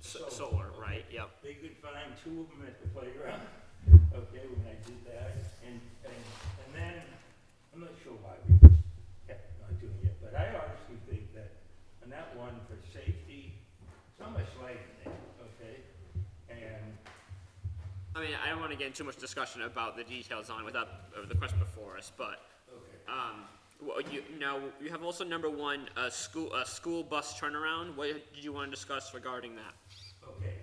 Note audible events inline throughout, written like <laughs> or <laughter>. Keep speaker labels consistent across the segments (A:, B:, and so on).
A: So- uh,
B: solar, right, yep.
A: They could find two of them at the playground, <laughs> okay, when I did that, and, and, and then, I'm not sure why we kept not doing it, but I honestly think that, on that one, for safety, so much light in there, okay? And,
B: I mean, I don't wanna get into much discussion about the details on without, of the question before us, but,
A: okay,
B: um, well, you, now, you have also number one, uh, school, uh, school bus turnaround, what did you wanna discuss regarding that?
A: okay,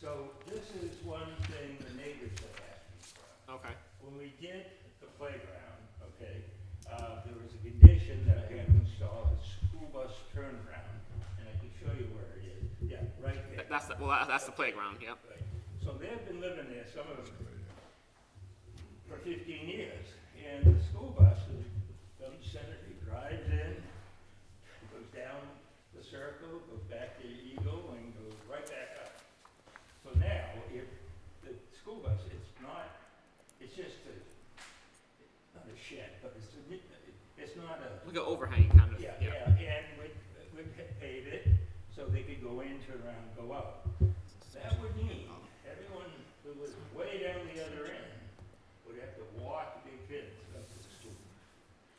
A: so this is one thing the neighbors have asked me for.
B: Okay.
A: When we did the playground, okay, uh, there was a condition that I had to install a school bus turnaround, and I can show you where it is. Yeah, right there.
B: That's, the- well, that- that's the playground, yep.
A: Right. So they've been living there, some of them, for fifteen years, and the school bus is, comes Senator, drives in, goes down the circle, goes back to Eagle, and goes right back up. So now, if the school bus, it's not, it's just a, not a shed, but it's a, mi- it's not a
B: Like an overhang kind of,
A: yeah,
B: yeah.
A: yeah, and we, we paid it so they could go in, turn around, go out. That would mean everyone who was way down the other end would have to walk their kids up to the school.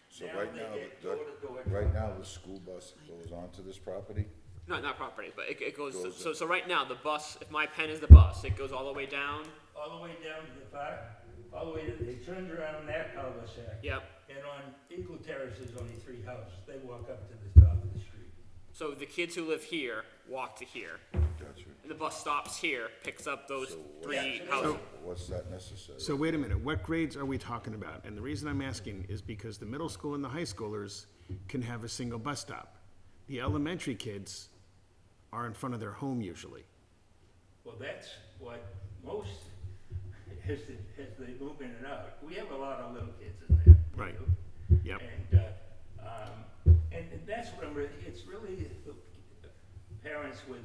C: So right
A: they
C: now,
A: get
C: the-
A: door-to-door
C: Right now, the school bus that goes onto this property,
B: No, not property, but it, it goes,
C: Goes
B: so,
C: up.
B: so right now, the bus, if my pen is the bus, it goes all the way down,
A: All the way down to the park, all the way, to- they turned around that cul-de-sac.
B: yep.
A: And on Eagle Terrace, there's only three houses. They walk up to the top of the street.
B: So the kids who live here walk to here,
C: gotcha.
B: and the bus stops here, picks up those
C: So what-
B: three
A: Yeah, so
B: houses.
C: What's that necessary?
D: So wait a minute, what grades are we talking about? And the reason I'm asking is because the middle school and the high schoolers can have a single bus stop. The elementary kids are in front of their home usually.
A: Well, that's what most, as, the- as they move in and out, we have a lot of little kids in there. you
D: Right.
A: know?
D: Yep.
A: And, uh, um, and that's what I'm really, it's really the parents with.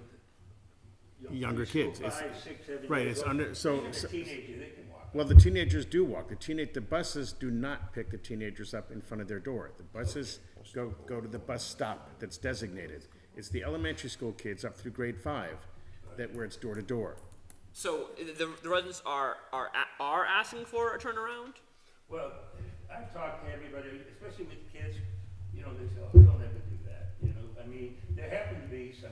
A: young-
D: Younger
A: school,
D: kids, it's-
A: Five, six, seven.
D: right,
A: years
D: it's
A: old.
D: under- so-
A: Even a
D: so-
A: teenager, they can walk.
D: Well, the teenagers do walk. The teenage, the buses do not pick the teenagers up in front of their door. The buses go, go to the bus stop that's designated. It's the elementary school kids up through grade five that where it's door to door.
B: So i- the, the residents are, are, a- are asking for a turnaround?
A: Well, I've talked to everybody, especially with kids, you know, they say, oh, they'll never do that, you know, I mean, there happen to be some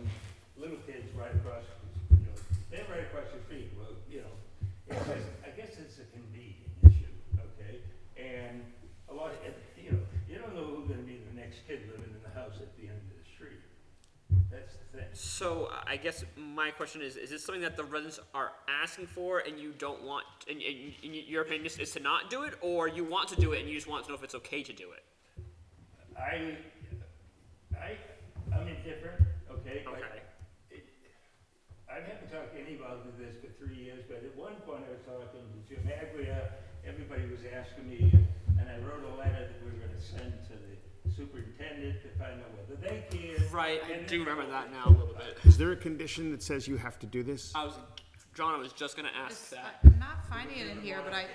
A: little kids right across, you know, they're right across your feet, well, you know, it's just, I guess it's a convenience issue, okay? And a lot, of you know, you don't know who's gonna be the next kid living in the house at the end of the street. That's the thing.
B: So I- I guess my question is, is this something that the residents are asking for and you don't want, and, and, and your opinion is, is to not do it, or you want to do it and you just want to know if it's okay to do it?
A: I, I, I'm indifferent, okay? but
B: Okay.
A: it- I haven't talked to anybody about this for three years, but at one point I was talking to Jim Agria, everybody was asking me, and I wrote a letter that we were gonna send to the superintendent to find out whether they care.
B: Right, I
A: and-
B: do remember that now a little bit.
D: Is there a condition that says you have to do this?
B: I was, John, I was just gonna ask
E: It's-
B: that.
E: I'm not finding it in here, but I,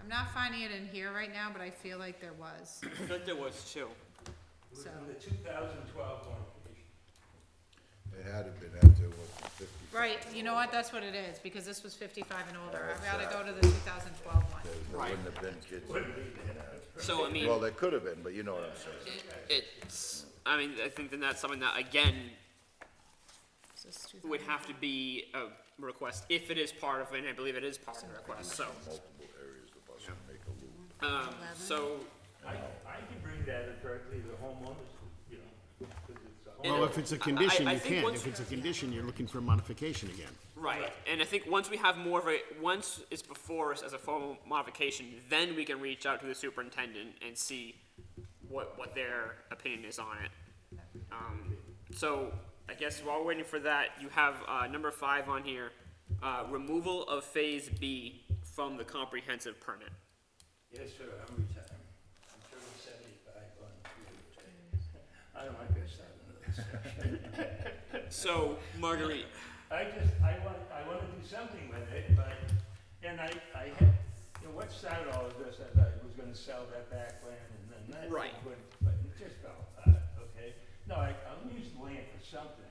E: I'm not finding it in here right now, but I feel like there was.
B: I thought there was two.
A: It was in the 2012 one.
C: It had to have been after, what, fifty?
E: Right, you know what, that's what it is, because this was fifty-five and older, I've gotta go to the two thousand twelve one.
C: There there
B: Right.
C: wouldn't have been kids.
B: So I mean.
C: Well, there could have been, but you know what I'm saying.
B: It's, I mean, I think then that's something that, again,
E: Is this
B: would
E: 2000?
B: have to be a request, if it is part of, it, and I believe it is part of the request, so.
C: Multiple areas the bus would make a loop.
B: Um, so,
A: I, I can bring that up directly to the homeowners, you know, because it's a home.
D: Well, if it's a condition,
B: I- I
D: you
B: think
D: can.
B: once-
D: If it's a condition, you're looking for a modification again.
B: right, and I think once we have more of a, once it's before us as a formal modification, then we can reach out to the superintendent and see what, what their opinion is on it. Um, so, I guess while we're waiting for that, you have, uh, number five on here, uh, removal of phase B from the comprehensive permit.
A: Yes, sir, I'm retired. I'm turning seventy-five on Tuesday. I don't like this, I don't know
B: So, Marguerite,
A: I just, I want, I want to do something with it, but, and I, I had, you know, what started all of this, I thought I was gonna sell that back land and then that.
B: Right.
A: would- But it just fell apart, okay? No, I, I'm using land for something,